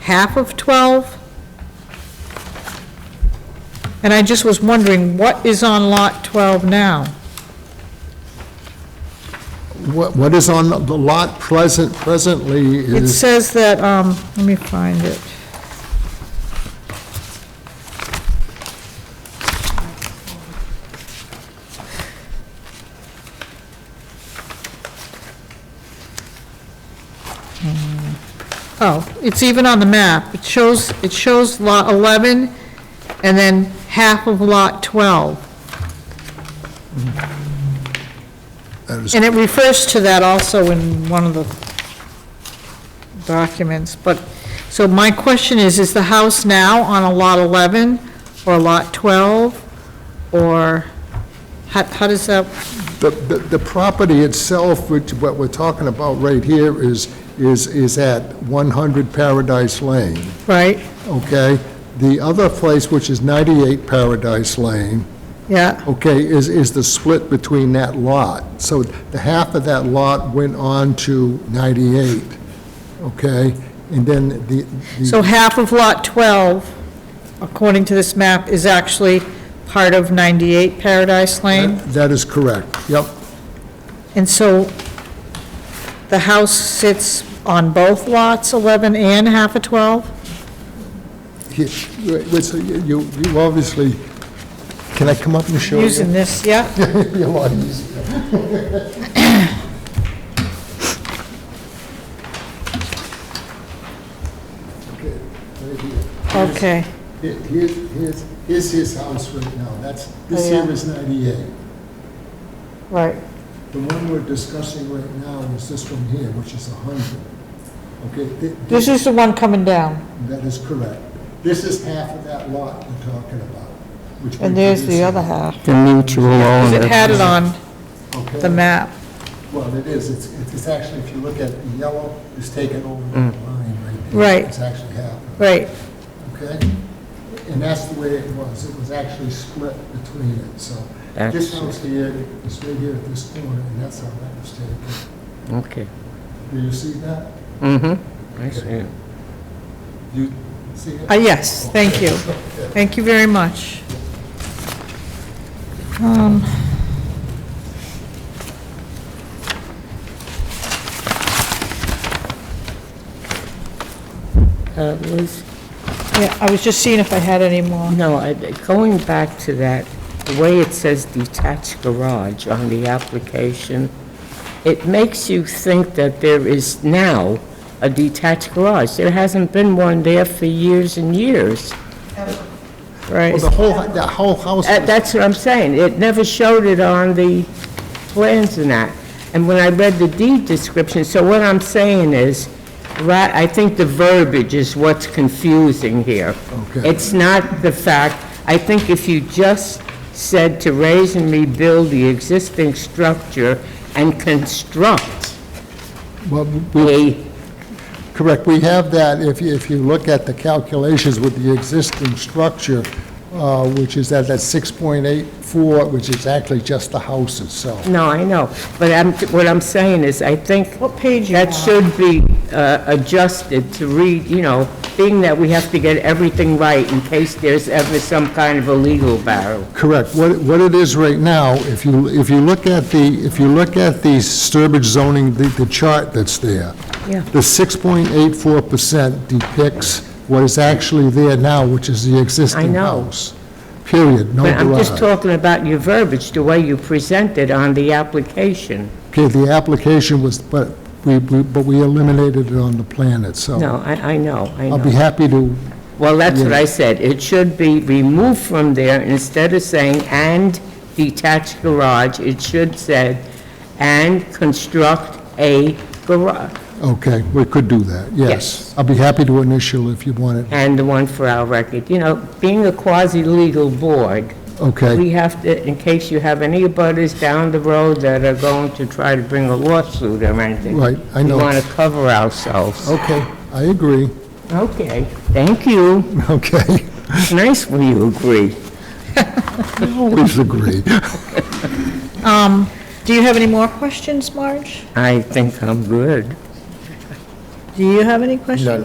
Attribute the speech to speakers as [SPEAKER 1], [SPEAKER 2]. [SPEAKER 1] half of 12. And I just was wondering, what is on Lot 12 now?
[SPEAKER 2] What what is on the lot pleasant, presently
[SPEAKER 1] It
[SPEAKER 2] is,
[SPEAKER 1] says that, um, let me find it. Hmm. Oh, it's even on the map. It shows, it shows Lot 11 and then half of Lot 12.
[SPEAKER 2] that is-
[SPEAKER 1] And it refers to that also in one of the documents, but, so my question is, is the house now on a lot 11 or lot 12? Or how, how does that,
[SPEAKER 2] the, the the property itself, which, what we're talking about right here is, is, is at 100 Paradise Lane,
[SPEAKER 1] right?
[SPEAKER 2] okay? The other place, which is 98 Paradise Lane,
[SPEAKER 1] Yeah,
[SPEAKER 2] okay, is, is the split between that lot. So the half of that lot went on to 98, okay? And then the, the-
[SPEAKER 1] so half of lot 12, according to this map, is actually part of 98 Paradise Lane?
[SPEAKER 2] that is correct, yep.
[SPEAKER 1] And so the house sits on both lots, 11 and half of 12?
[SPEAKER 2] Here, wait, so You, you obviously, can I come up and show you?
[SPEAKER 1] Using this, yeah?
[SPEAKER 2] It'd be a lot easier. Okay, right here.
[SPEAKER 1] Okay.
[SPEAKER 2] Here- Here's, here's, here's his house right now, that's, this
[SPEAKER 1] Oh, yeah.
[SPEAKER 2] here is 98.
[SPEAKER 1] Right.
[SPEAKER 2] The one we're discussing right now is this one here, which is 100. Okay? thi-
[SPEAKER 1] This is the one coming down,
[SPEAKER 2] That is correct. This is half of that lot we're talking about, which.
[SPEAKER 1] and
[SPEAKER 2] we're
[SPEAKER 1] there's the other
[SPEAKER 2] producing.
[SPEAKER 1] half.
[SPEAKER 3] The mutual
[SPEAKER 1] Because
[SPEAKER 3] owner.
[SPEAKER 1] it had Oh, it on
[SPEAKER 2] Okay?
[SPEAKER 1] the map.
[SPEAKER 2] Well, it is, it's, it's it's actually, if you look at the yellow, it's taken over the line right there.
[SPEAKER 1] Right.
[SPEAKER 2] It's actually happened,
[SPEAKER 1] Right,
[SPEAKER 2] okay? And that's the way it was, it was actually split between it, so. This
[SPEAKER 3] Actually.
[SPEAKER 2] house here is right here at this corner, and that's how that was taken.
[SPEAKER 3] Okay.
[SPEAKER 2] Do you see that?
[SPEAKER 3] Mm-hmm. I see it.
[SPEAKER 2] Do you see it?
[SPEAKER 1] Uh, yes, thank you. Thank you very much. Um,
[SPEAKER 4] Uh, Liz,
[SPEAKER 1] Yeah, I was just seeing if I had any more.
[SPEAKER 4] no, I- going back to that, the way it says detached garage on the application, it makes you think that there is now a detached garage. There hasn't been one there for years and years.
[SPEAKER 1] Right,
[SPEAKER 2] Well, the whole, that whole house,
[SPEAKER 4] Uh, That's what I'm saying. It never showed it on the plans and that. And when I read the deed description, so what I'm saying is, right, I think the verbiage is what's confusing here.
[SPEAKER 2] Okay.
[SPEAKER 4] It's not the fact, I think if you just said to raise and rebuild the existing structure and construct
[SPEAKER 2] well,
[SPEAKER 4] a,
[SPEAKER 2] correct, we have that, if you, if you look at the calculations with the existing structure, uh, which is at that 6.84, which is actually just the house itself.
[SPEAKER 4] no, I know, but I'm, what I'm saying is, I think
[SPEAKER 1] what page you
[SPEAKER 4] That
[SPEAKER 1] on?
[SPEAKER 4] should be uh, adjusted to read, you know, being that we have to get everything right in case there's ever some kind of a legal battle.
[SPEAKER 2] Correct. What, what it is right now, if you, if you look at the, if you look at the Sturbridge zoning, the, the chart that's there,
[SPEAKER 4] Yeah.
[SPEAKER 2] the 6.84% depicts what is actually there now, which is the existing
[SPEAKER 4] know.
[SPEAKER 2] house. Period, no
[SPEAKER 4] But I'm just
[SPEAKER 2] garage.
[SPEAKER 4] talking about your verbiage, the way you present it on the application.
[SPEAKER 2] Okay, the application was, but we, we- but we eliminated it on the plan itself.
[SPEAKER 4] No, I, I know, I
[SPEAKER 2] I'll be
[SPEAKER 4] know.
[SPEAKER 2] happy to,
[SPEAKER 4] Well, that's what I said. It should be removed from there instead of saying "and detached garage," it should say "and construct a garage."
[SPEAKER 2] okay, we could do that, yes.
[SPEAKER 4] Yes.
[SPEAKER 2] I'll be happy to initial if you want it.
[SPEAKER 4] and the one for our record. You know, being a quasi-legal board, we
[SPEAKER 2] Okay,
[SPEAKER 4] have to, in case you have any abutters down the road that are going to try to bring a lawsuit or anything.
[SPEAKER 2] Right, I know.
[SPEAKER 4] We want to cover ourselves.
[SPEAKER 2] okay, I agree,
[SPEAKER 4] Okay, thank you.
[SPEAKER 2] okay.
[SPEAKER 4] It's nice when you agree. Oh.
[SPEAKER 2] Always agree.
[SPEAKER 1] Mm-hmm. Um, Do you have any more questions, Marge?
[SPEAKER 4] I think I'm good.
[SPEAKER 1] Do you have any questions?